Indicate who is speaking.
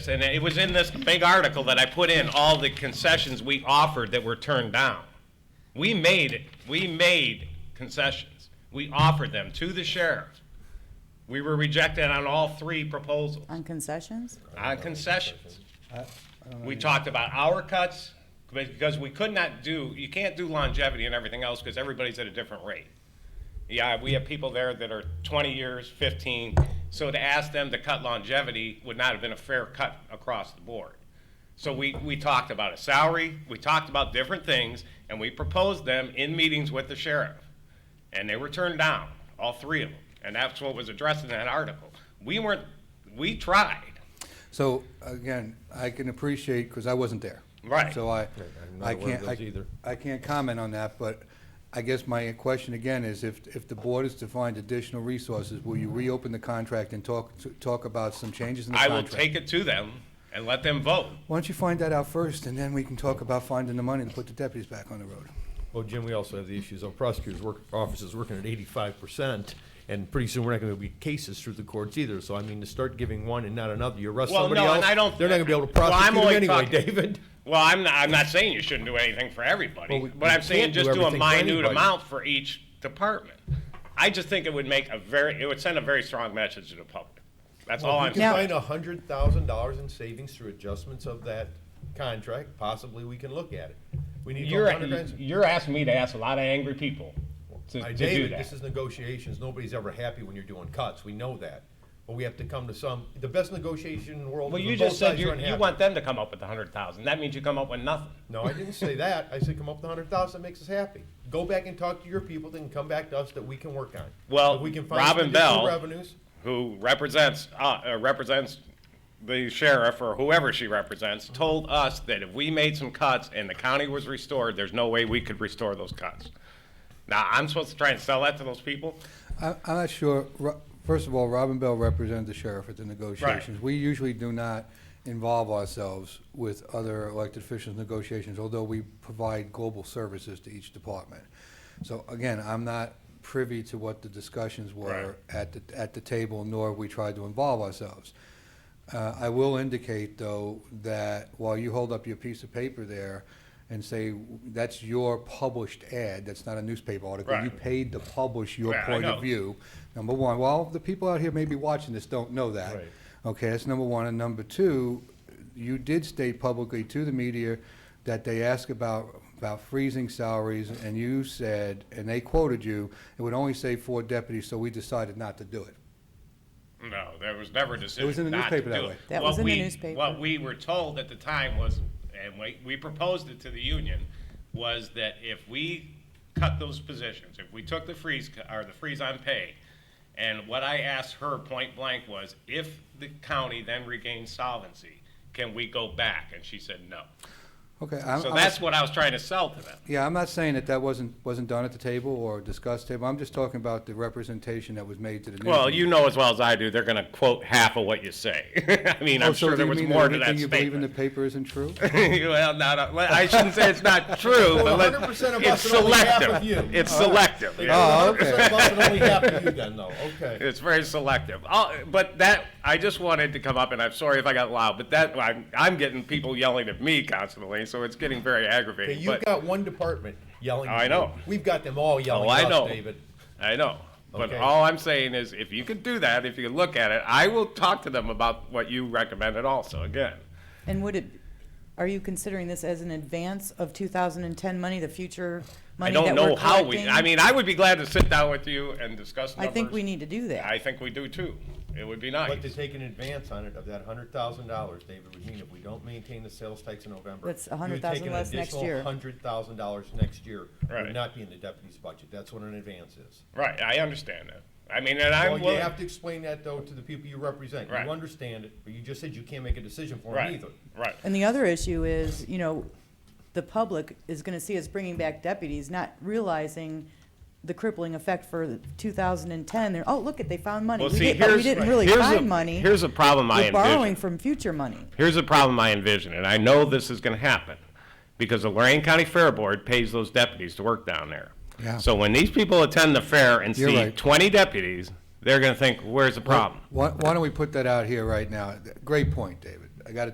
Speaker 1: And it was in this big article that I put in all the concessions we offered that were turned down. We made, we made concessions. We offered them to the sheriff. We were rejected on all three proposals,
Speaker 2: On concessions?
Speaker 1: on Uh, concessions. We talked about hour cuts, because we could not do, you can't do longevity and everything else, because everybody's at a different rate. Yeah, we have people there that are twenty years, fifteen, so to ask them to cut longevity would not have been a fair cut across the board. So we, we talked about a salary, we talked about different things, and we proposed them in meetings with the sheriff. And they were turned down, all three of them, and that's what was addressed in that article. We weren't, we tried,
Speaker 3: So again, I can appreciate, because I wasn't there.
Speaker 1: Right.
Speaker 3: So I,
Speaker 4: I'm not
Speaker 3: I
Speaker 4: aware of
Speaker 3: can't, I-
Speaker 4: those either.
Speaker 3: I can't comment on that, but I guess my question again is if, if the board is to find additional resources, will you reopen the contract and talk, to- talk about some changes in the
Speaker 1: I will
Speaker 3: contract?
Speaker 1: take it to them and let them vote.
Speaker 3: Why don't you find that out first, and then we can talk about finding the money to put the deputies back on the road?
Speaker 4: Well, Oh, Jim, we also have the issues on prosecutors' work, offices working at eighty-five percent, and pretty soon we're not gonna be cases through the courts either, so I mean, to start giving one and not another, you arrest
Speaker 1: Well,
Speaker 4: somebody
Speaker 1: no, and
Speaker 4: else,
Speaker 1: I don't.
Speaker 4: they're not gonna be able to
Speaker 1: Well, I'm
Speaker 4: prosecute them
Speaker 1: only
Speaker 4: anyway,
Speaker 1: talking-
Speaker 4: David.
Speaker 1: Well, I'm not, I'm not saying you shouldn't do anything for everybody,
Speaker 4: Well, we-
Speaker 1: but
Speaker 4: we
Speaker 1: I'm saying
Speaker 4: can't do
Speaker 1: just do a
Speaker 4: everything for
Speaker 1: minute
Speaker 4: anybody.
Speaker 1: amount for each department. I just think it would make a very, it would send a very strong message to the public. That's all Oh, I'm
Speaker 4: If we can
Speaker 1: saying.
Speaker 4: find a hundred thousand dollars in savings through adjustments of that contract, possibly we can look at it. We need to
Speaker 1: You're,
Speaker 4: go hundred grand-
Speaker 1: you're asking me to ask a lot of angry people to,
Speaker 4: I-
Speaker 1: to do
Speaker 4: David, this
Speaker 1: that.
Speaker 4: is negotiations. Nobody's ever happy when you're doing cuts. We know that. But we have to come to some, the best negotiation in the world
Speaker 1: Well,
Speaker 4: is
Speaker 1: you
Speaker 4: when both
Speaker 1: just said
Speaker 4: sides are
Speaker 1: you, you
Speaker 4: unhappy.
Speaker 1: want them to come up with a hundred thousand. That means you come up with nothing.
Speaker 4: No, I didn't say that. I said come up with a hundred thousand that makes us happy. Go back and talk to your people, then come back to us that we can work on.
Speaker 1: Well,
Speaker 4: If we can find
Speaker 1: Robin
Speaker 4: some additional
Speaker 1: Bell-
Speaker 4: Revenues.
Speaker 1: who represents, uh, uh, represents the sheriff or whoever she represents, told us that if we made some cuts and the county was restored, there's no way we could restore those cuts. Now, I'm supposed to try and sell that to those people?
Speaker 3: I, I'm not sure, Ro- first of all, Robin Bell represented the sheriff at the negotiations. We usually do not involve ourselves with other elected officials' negotiations, although we provide global services to each department. So again, I'm not privy to what the discussions
Speaker 1: Right.
Speaker 3: were at the, at the table, nor have we tried to involve ourselves. Uh, I will indicate, though, that while you hold up your piece of paper there and say, that's your published ad, that's not a newspaper article. You
Speaker 1: Right.
Speaker 3: paid to publish your
Speaker 1: Yeah, I
Speaker 3: point
Speaker 1: know.
Speaker 3: of view, number one. Well, the people out here maybe watching this don't know that.
Speaker 4: Right.
Speaker 3: Okay, that's number one. And number two, you did state publicly to the media that they asked about, about freezing salaries, and you said, and they quoted you, it would only save four deputies, so we decided not to do it.
Speaker 1: No, there was never a
Speaker 3: in
Speaker 1: decision
Speaker 3: the
Speaker 1: not to
Speaker 3: newspaper that
Speaker 1: do
Speaker 3: way.
Speaker 1: it.
Speaker 2: That
Speaker 1: What
Speaker 2: was in the
Speaker 1: we-
Speaker 2: newspaper.
Speaker 1: What we were told at the time was, and we, we proposed it to the union, was that if we cut those positions, if we took the freeze, co- or the freeze on pay, and what I asked her point blank was, if the county then regains solvency, can we go back? And she said no.
Speaker 3: Okay, I'm,
Speaker 1: So
Speaker 3: I'm-
Speaker 1: that's what I was trying to sell to them.
Speaker 3: Yeah, I'm not saying that that wasn't, wasn't done at the table or discussed table. I'm just talking about the representation that was made to the news.
Speaker 1: Well, you know as well as I do, they're gonna quote half of what you say. I mean, I'm
Speaker 3: Oh, so
Speaker 1: sure
Speaker 3: do
Speaker 1: there
Speaker 3: you
Speaker 1: was
Speaker 3: mean
Speaker 1: more to that
Speaker 3: everything you believe in the
Speaker 1: statement.
Speaker 3: paper isn't true?
Speaker 1: well, not a, well, I shouldn't say it's not true, but let,
Speaker 4: 100% of
Speaker 1: it's
Speaker 4: us and only half
Speaker 1: selective.
Speaker 4: of you.
Speaker 1: It's selective. yeah.
Speaker 3: Oh,
Speaker 4: Hundred percent of us and only half of you then, though. Okay.
Speaker 1: It's very selective. i but that I just wanted to come up, and I'm sorry if I got loud, but that I'm, I'm getting people yelling at me constantly, so it's getting very
Speaker 4: Okay,
Speaker 1: aggravating.
Speaker 4: You've
Speaker 1: but
Speaker 4: got one department yelling. at
Speaker 1: I
Speaker 4: you.
Speaker 1: know.
Speaker 4: We've got them all yelling
Speaker 1: Oh, I
Speaker 4: at
Speaker 1: know.
Speaker 4: us, David.
Speaker 1: I know. But
Speaker 4: Okay.
Speaker 1: all I'm saying is, if you could do that, if you could look at it, I will talk to them about what you recommended. Also, again,
Speaker 2: And would it, are you considering this as an advance of 2010 money, the future money
Speaker 1: I don't
Speaker 2: that
Speaker 1: know
Speaker 2: we're
Speaker 1: how we. I
Speaker 2: collecting?
Speaker 1: mean, I would be glad to sit down with you and discuss.
Speaker 2: I
Speaker 1: Numbers.
Speaker 2: think we need to do that.
Speaker 1: I think we do too. It would be nice.
Speaker 4: But to take an advance on it of that hundred thousand dollars, David, would mean if we don't maintain the sales tax in November.
Speaker 2: That's
Speaker 4: you would
Speaker 2: $100,000
Speaker 4: take an
Speaker 2: less next
Speaker 4: additional
Speaker 2: year.
Speaker 4: Hundred thousand dollars next year
Speaker 1: Right.
Speaker 4: would not be in the deputy's budget. That's what an advance is.
Speaker 1: Right, I understand that. I mean, and I'm
Speaker 4: Well, you
Speaker 1: willing,
Speaker 4: have to explain that though to the people you represent.
Speaker 1: Right.
Speaker 4: You understand it, but you just said you can't make a decision for them
Speaker 1: right,
Speaker 4: either.
Speaker 1: right.
Speaker 2: And the other issue is, you know, the public is gonna see us bringing back deputies, not realizing the crippling effect for two thousand and ten, they're, oh, look it, they found money.
Speaker 1: Well,
Speaker 2: We
Speaker 1: see,
Speaker 2: did- but
Speaker 1: here's.
Speaker 2: we didn't really
Speaker 1: here's a-
Speaker 2: find money.
Speaker 1: Here's a problem I
Speaker 2: We're borrowing
Speaker 1: envision.
Speaker 2: from future money.
Speaker 1: Here's a problem I envision, and I know this is gonna happen, because the Lorraine County Fair Board pays those deputies to work down there.
Speaker 3: Yeah.
Speaker 1: So when these people attend the fair and
Speaker 3: You're
Speaker 1: see
Speaker 3: right.
Speaker 1: twenty deputies, they're gonna think, where's the problem?
Speaker 3: Why, why don't we put that out here right now? Great point, David. I gotta